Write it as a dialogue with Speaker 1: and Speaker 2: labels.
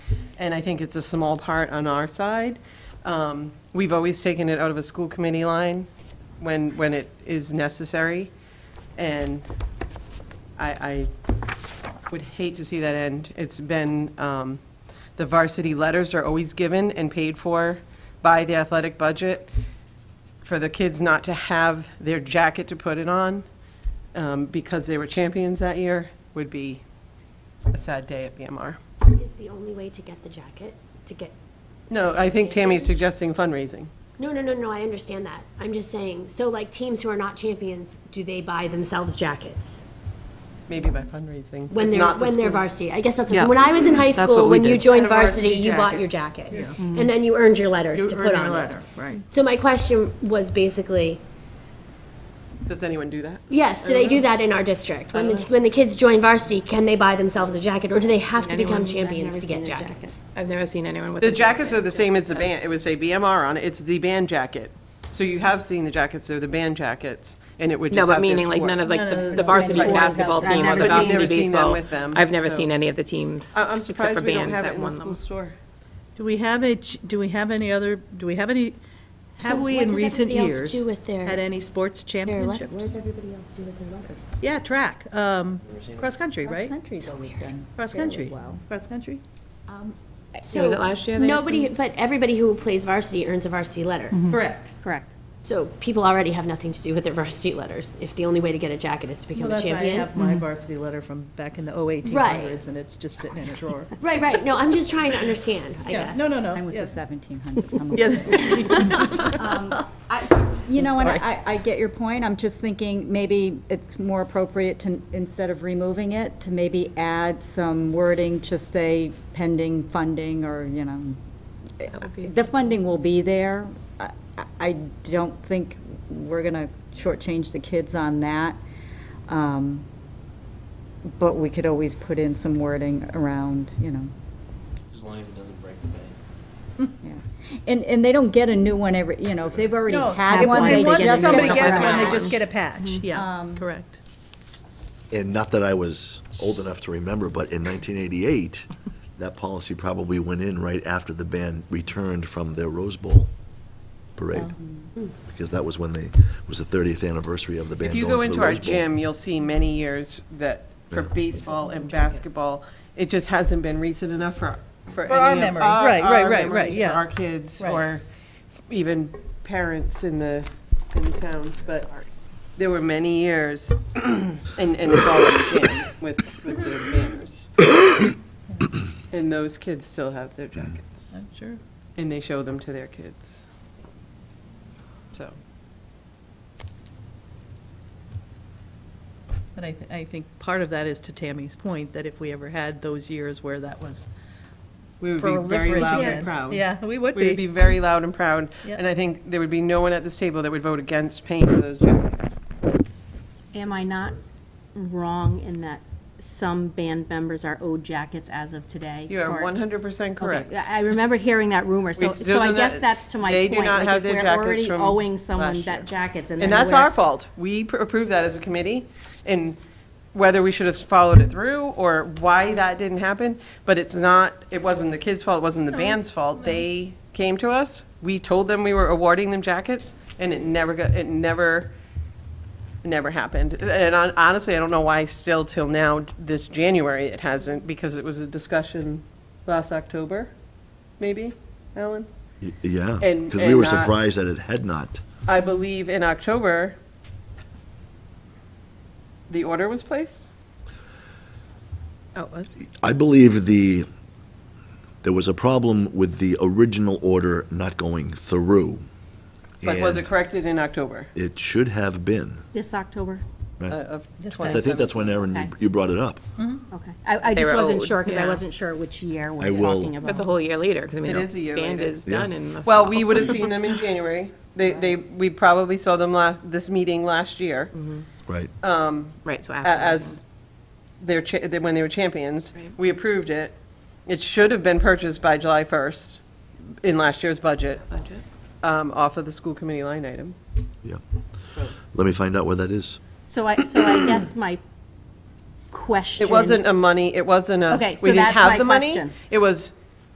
Speaker 1: and I think it's a small part on our side. Um, We've always taken it out of a school committee line when, when it is necessary, and I, I would hate to see that end. It's been, um, the varsity letters are always given and paid for by the athletic budget for the kids not to have their jacket to put it on um, because they were champions that year would be a sad day at BMR.
Speaker 2: Is the only way to get the jacket, to get,
Speaker 1: No, I think Tammy's suggesting fundraising.
Speaker 2: no, no, no, no, I understand that. I'm just saying, so like teams who are not champions, do they buy themselves jackets?
Speaker 1: Maybe by fundraising.
Speaker 2: When
Speaker 1: It's
Speaker 2: they're,
Speaker 1: not the
Speaker 2: when they're
Speaker 1: school.
Speaker 2: varsity, I guess that's,
Speaker 3: Yeah.
Speaker 2: when I was in high
Speaker 3: That's
Speaker 2: school,
Speaker 3: what we
Speaker 2: when you
Speaker 3: did.
Speaker 2: joined
Speaker 4: Had a varsity
Speaker 2: varsity, you bought
Speaker 4: jacket.
Speaker 2: your jacket.
Speaker 4: Yeah. Mm-hmm.
Speaker 2: And then you earned your letters
Speaker 4: You
Speaker 2: to
Speaker 4: earned
Speaker 2: put
Speaker 4: your
Speaker 2: on it.
Speaker 4: letter, right.
Speaker 2: So my question was basically,
Speaker 1: Does anyone do that?
Speaker 2: yes, do they
Speaker 4: Uh-huh.
Speaker 2: do that in our district? When the, when the kids join varsity, can they buy themselves a jacket, or do they have to become champions to get jackets?
Speaker 5: I've never seen anyone with.
Speaker 1: The jackets are the same as the band, it would say BMR on it, it's the band jacket. So you have seen the jackets, they're the band jackets, and it would
Speaker 5: No,
Speaker 1: just have their
Speaker 5: but meaning like
Speaker 1: sport.
Speaker 5: none of like
Speaker 4: None
Speaker 5: the-
Speaker 4: of
Speaker 5: the
Speaker 4: the
Speaker 5: varsity
Speaker 4: sports.
Speaker 5: basketball
Speaker 4: I've
Speaker 5: team or
Speaker 4: never
Speaker 5: the
Speaker 4: seen-
Speaker 5: varsity
Speaker 1: never seen them
Speaker 5: baseball.
Speaker 1: with them,
Speaker 5: I've never
Speaker 1: so-
Speaker 5: seen any of the teams
Speaker 1: I- I'm
Speaker 5: except for
Speaker 1: surprised we don't
Speaker 5: band
Speaker 1: have it
Speaker 5: that
Speaker 1: in the
Speaker 5: won
Speaker 1: school
Speaker 5: them.
Speaker 1: store.
Speaker 4: Do we have a, ch- do we have any other, do we have any, have
Speaker 2: So
Speaker 4: we
Speaker 2: what
Speaker 4: in
Speaker 2: does
Speaker 4: recent
Speaker 2: everybody else
Speaker 4: years?
Speaker 2: do with their-
Speaker 4: Had any sports
Speaker 2: Their letter, what does
Speaker 4: championships?
Speaker 2: everybody else do with their letters?
Speaker 4: Yeah, track, um, cross-country, right?
Speaker 6: Cross-country's always done fairly
Speaker 4: Cross-country,
Speaker 6: well.
Speaker 4: cross-country?
Speaker 5: Yeah, was it last year they had
Speaker 2: Nobody, but everybody who plays varsity earns a varsity letter.
Speaker 4: Correct.
Speaker 6: Correct.
Speaker 2: So people already have nothing to do with their varsity letters if the only way to get a jacket is to
Speaker 4: Well,
Speaker 2: become a
Speaker 4: that's, I
Speaker 2: champion.
Speaker 4: have my varsity letter from back in the oh eighteen hundreds, and it's just sitting in a drawer.
Speaker 2: Right, right. No, I'm just trying to understand, I
Speaker 4: Yeah,
Speaker 2: guess.
Speaker 4: no, no, no.
Speaker 6: Mine was
Speaker 4: Oh, yeah.
Speaker 6: the seventeen hundreds.
Speaker 2: I'm
Speaker 6: You know, and
Speaker 2: sorry.
Speaker 6: Um, I, I get your point. I'm just thinking maybe it's more appropriate to, instead of removing it, to maybe add some wording, just say pending funding or, you know. The funding will be there. I, I- I don't think we're gonna shortchange the kids on that. Um, But we could always put in some wording around, you know,
Speaker 7: As long as it doesn't break the bank.
Speaker 6: yeah. And, and they don't get a new one every, you know, if they've already
Speaker 4: No,
Speaker 6: had
Speaker 4: if-
Speaker 6: one,
Speaker 4: and
Speaker 6: they just
Speaker 4: once
Speaker 6: get one.
Speaker 4: somebody gets one, they
Speaker 6: around.
Speaker 4: just get a patch,
Speaker 2: Mm-hmm.
Speaker 4: yeah,
Speaker 2: Um,
Speaker 4: correct.
Speaker 8: And not that I was old enough to remember, but in 1988, that policy probably went in right after the band returned from their Rose Bowl parade. Because that was when they, was the 30th anniversary of the band
Speaker 1: Mm-hmm. If you
Speaker 8: going
Speaker 1: go
Speaker 8: to the
Speaker 1: into our
Speaker 8: Rose Bowl.
Speaker 1: gym, you'll see many years that for
Speaker 8: Yeah.
Speaker 1: baseball and basketball, it just hasn't been recent enough for, for
Speaker 4: For our
Speaker 1: any of
Speaker 4: memory. Right, right,
Speaker 1: our
Speaker 4: right, right,
Speaker 1: memories,
Speaker 4: yeah.
Speaker 1: For our kids,
Speaker 4: Right.
Speaker 1: or even parents in the, in the towns, but there were many years, and, and it's all again with, with the banners. And those kids still have their jackets,
Speaker 4: I'm Sure.
Speaker 1: and they show them to their kids. So,
Speaker 4: But I, th- I think part of that is to Tammy's point, that if we ever had those years where that was
Speaker 1: we would be very loud
Speaker 4: proliferated.
Speaker 1: and proud.
Speaker 4: Yeah, we would
Speaker 1: We would be
Speaker 4: be.
Speaker 1: very loud and proud,
Speaker 4: Yeah.
Speaker 1: and I think there would be no one at this table that would vote against paying for those jackets.
Speaker 9: Am I not wrong in that some band members are owed jackets as of today?
Speaker 1: You are
Speaker 9: for-
Speaker 1: 100% correct.
Speaker 9: Okay, I I remember hearing that rumor, so,
Speaker 1: We-
Speaker 9: so I
Speaker 1: those are
Speaker 9: guess
Speaker 1: the-
Speaker 9: that's to my
Speaker 1: they
Speaker 9: point.
Speaker 1: do not
Speaker 9: like,
Speaker 1: have
Speaker 9: if
Speaker 1: their
Speaker 9: we're
Speaker 1: jackets
Speaker 9: already
Speaker 1: from
Speaker 9: owing someone
Speaker 1: last year.
Speaker 9: that jackets and then
Speaker 1: And that's
Speaker 9: we're-
Speaker 1: our fault. We pr- approved that as a committee, and whether we should have followed it through or why that didn't happen, but it's not, it wasn't the kids' fault, it wasn't the band's fault. They came to us, we told them we were awarding them jackets, and it never got, it never, it never happened. And hon- honestly, I don't know why still till now, this January, it hasn't, because it was a discussion last October, maybe, Alan?
Speaker 8: Y- Yeah,
Speaker 1: and-
Speaker 8: because we
Speaker 1: and uh,
Speaker 8: were
Speaker 1: not-
Speaker 8: surprised that it had not.
Speaker 1: I believe in October, the order was placed?
Speaker 4: Oh, uh,
Speaker 8: I believe the, there was a problem with the original order not going through.
Speaker 1: But was it
Speaker 8: and
Speaker 1: corrected in October
Speaker 8: It should have been.
Speaker 9: This October,
Speaker 1: uh,
Speaker 8: Right.
Speaker 1: of
Speaker 4: Yes,
Speaker 8: I think
Speaker 1: 2017?
Speaker 8: that's when, Aaron, you-
Speaker 9: Okay.
Speaker 8: you brought it up.
Speaker 9: okay. I, I
Speaker 1: They
Speaker 9: just
Speaker 1: were
Speaker 9: wasn't
Speaker 1: owed,
Speaker 9: sure, because
Speaker 1: yeah.
Speaker 9: I wasn't sure which year
Speaker 8: I
Speaker 9: we're
Speaker 8: will-
Speaker 9: talking about.
Speaker 5: That's a whole year later, because I mean,
Speaker 1: It is a
Speaker 5: the
Speaker 1: year
Speaker 5: band
Speaker 1: later.
Speaker 5: is done in the.
Speaker 1: Well,
Speaker 5: fall.
Speaker 1: we would have seen them in January. They, they, we probably saw them last, this meeting last year
Speaker 9: Mm-hmm.
Speaker 8: Right.
Speaker 1: Uh,
Speaker 5: Right, so
Speaker 1: a-
Speaker 5: after.
Speaker 1: as their, cha- they- when they were champions.
Speaker 5: Right.
Speaker 1: We approved it. It should have been purchased by July 1st in last year's budget,
Speaker 5: Budget.
Speaker 1: um, off of the school committee line item.
Speaker 8: Yeah. Let me find out where that is.
Speaker 9: So I, so I guess my question.
Speaker 1: It wasn't a money, it wasn't a,
Speaker 9: Okay, so
Speaker 1: we didn't
Speaker 9: that's
Speaker 1: have
Speaker 9: my
Speaker 1: the money.
Speaker 9: question.
Speaker 1: It was,